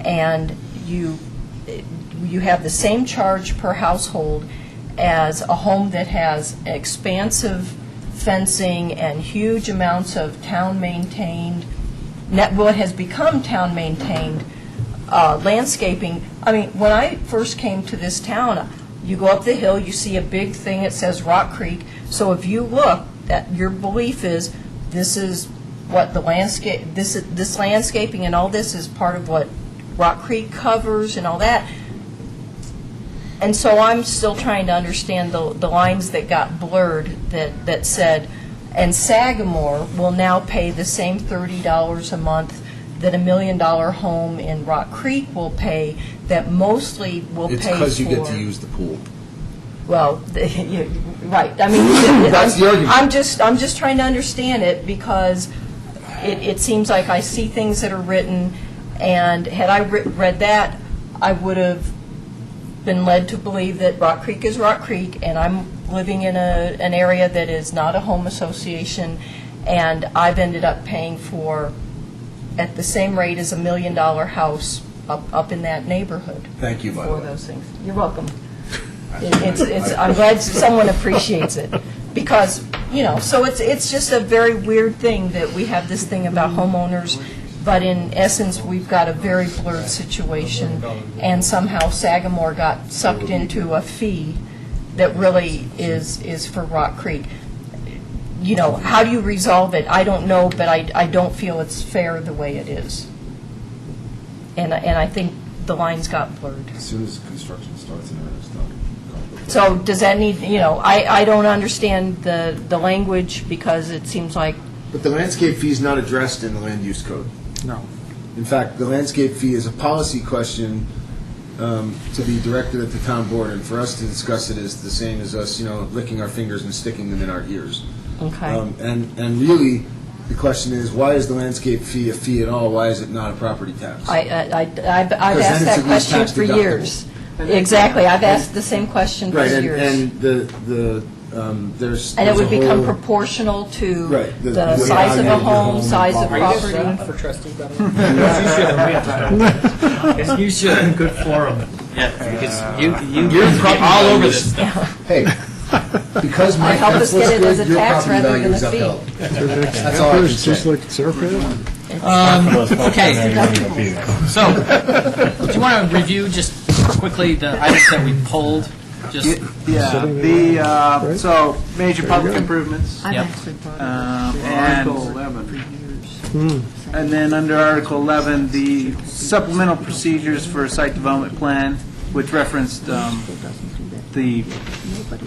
and you, you have the same charge per household as a home that has expansive fencing and huge amounts of town-maintained, net, what has become town-maintained uh, landscaping. I mean, when I first came to this town, you go up the hill, you see a big thing, it says Rock Creek. So if you look, that, your belief is, this is what the landscape, this, is- this landscaping and all this is part of what Rock Creek covers and all that. And so I'm still trying to understand the, the lines that got blurred that, that said, and Sagamore will now pay the same thirty dollars a month that a million-dollar home in Rock Creek will pay, that mostly will pay It's for. because you get to use the pool. Well, the- you- right, I mean. That's the argument. I'm just, I'm just trying to understand it because it, it seems like I see things that are written, and had I re- read that, I would have been led to believe that Rock Creek is Rock Creek, and I'm living in a, an area that is not a home association, and I've ended up paying for, at the same rate as a million-dollar house up, up in that neighborhood Thank you, by the for way. those things. You're welcome. It- It's, it's, I'm glad someone appreciates it, because, you know, so it's, it's just a very weird thing that we have this thing about homeowners, but in essence, we've got a very blurred situation, and somehow Sagamore got sucked into a fee that really is, is for Rock Creek. You know, how do you resolve it? I don't know, but I, I don't feel it's fair the way it is. And, I- and I think the lines got blurred. As soon as construction starts and everything's done. So does that need, you know, I, I don't understand the, the language because it seems like, But the landscape fee is not addressed in the land use code. No. In fact, the landscape fee is a policy question um, to be directed at the town board, and for us to discuss it is the same as us, you know, licking our fingers and sticking them in our ears. okay, Um, And, and really, the question is, why is the landscape fee a fee at all? Why is it not a property tax? I, I, I- I've I've Because then asked it's that at least question tax for deductible. years. Exactly, I've asked the same question for Right, and, years. and the, the, um, there's. And it there's would a become whole- proportional to Right, the the- the size of value a of the home, home, size of Are you guys running property. for trustee, by the way? Yes, you should. Good forum. Yeah, because you, you, You're you're probably all on over this this stuff. Hey, because my Help us tax get looks it as a good, your tax property rather value than is a fee. upheld. That's all I can Just say. like Serpent? Okay, so, do you want to review just quickly the items that we pulled? Just, Yeah, Sitting the, there, uh, right? so, major public improvements, I've Yep. actually bought it. um, Article and, Hmm. 11. and then under Article 11, the supplemental procedures for a site development plan, which referenced um, the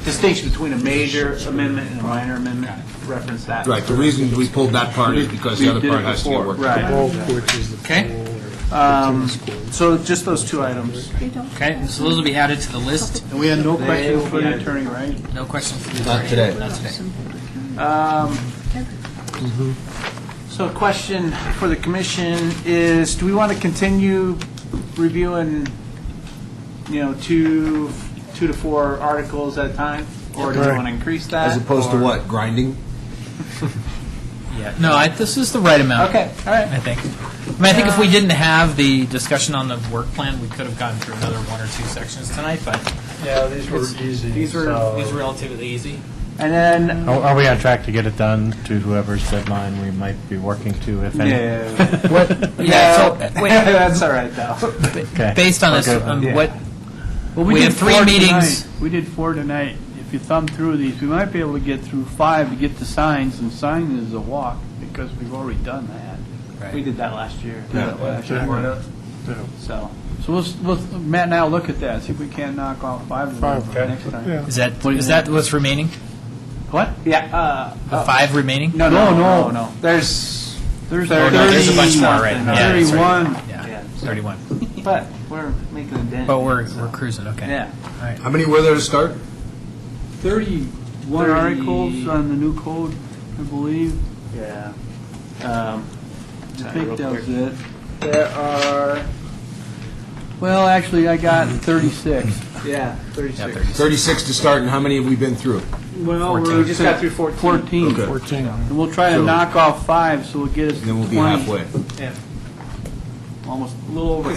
distinction between a major amendment and a minor amendment, reference that. Right, the reason we pulled that part is because We the other did it part has to get before, worked out. Right. Golf, which is the Okay. pool, Um, tennis court. So just those two items. okay, so those will be added to the list. And we had no questions for the attorney, right? No questions for the Not attorney. today. Not today. So a question for the commission is, do we want to continue reviewing, you know, two, two to four articles at a time? Or do we Right. want to increase that? As opposed to or- what, grinding? Yeah, no, I, this is the right amount. Okay, all right. I think. I mean, I think if we didn't have the discussion on the work plan, we could have gotten through another one or two sections tonight, but Yeah, these were easy. these were- so- these were relatively easy. And then, Are are we on track to get it done to whoever's deadline we might be working to, if any? yeah, Yeah, so, wait, that's all right, though. Okay. based on this, Okay. um, Yeah. what, Well, We we had did three four meetings. tonight. We did four tonight. If you thumb through these, we might be able to get through five to get the signs, and sign is a walk, because we've already done that. We did that last year. So, So we'll, s- we'll, Matt and I will look at that, see if we can knock off five of them Five, for next time. Yeah. is that, is that what's remaining? What? yeah, uh, The five remaining? no, no, No, no. no, no. There's, There's Oh, no, there's a bunch more, right? thirty- Yeah, that's right. Thirty-one. Yeah, Yeah. 31. but we're making a dent. But we're, we're cruising, okay. Yeah. How many were there to start? Thirty-one articles on the new code, I believe. Yeah. Um, I sorry, think real that quick. was it. There are, Well, actually, I got thirty-six. yeah, 36. 36 to start, and how many have we been through? Well, Fourteen. we're We just got through 14. fourteen. Okay. Fourteen. And we'll try to knock off five, so we'll get us And then we'll be twenty, halfway. Almost a little over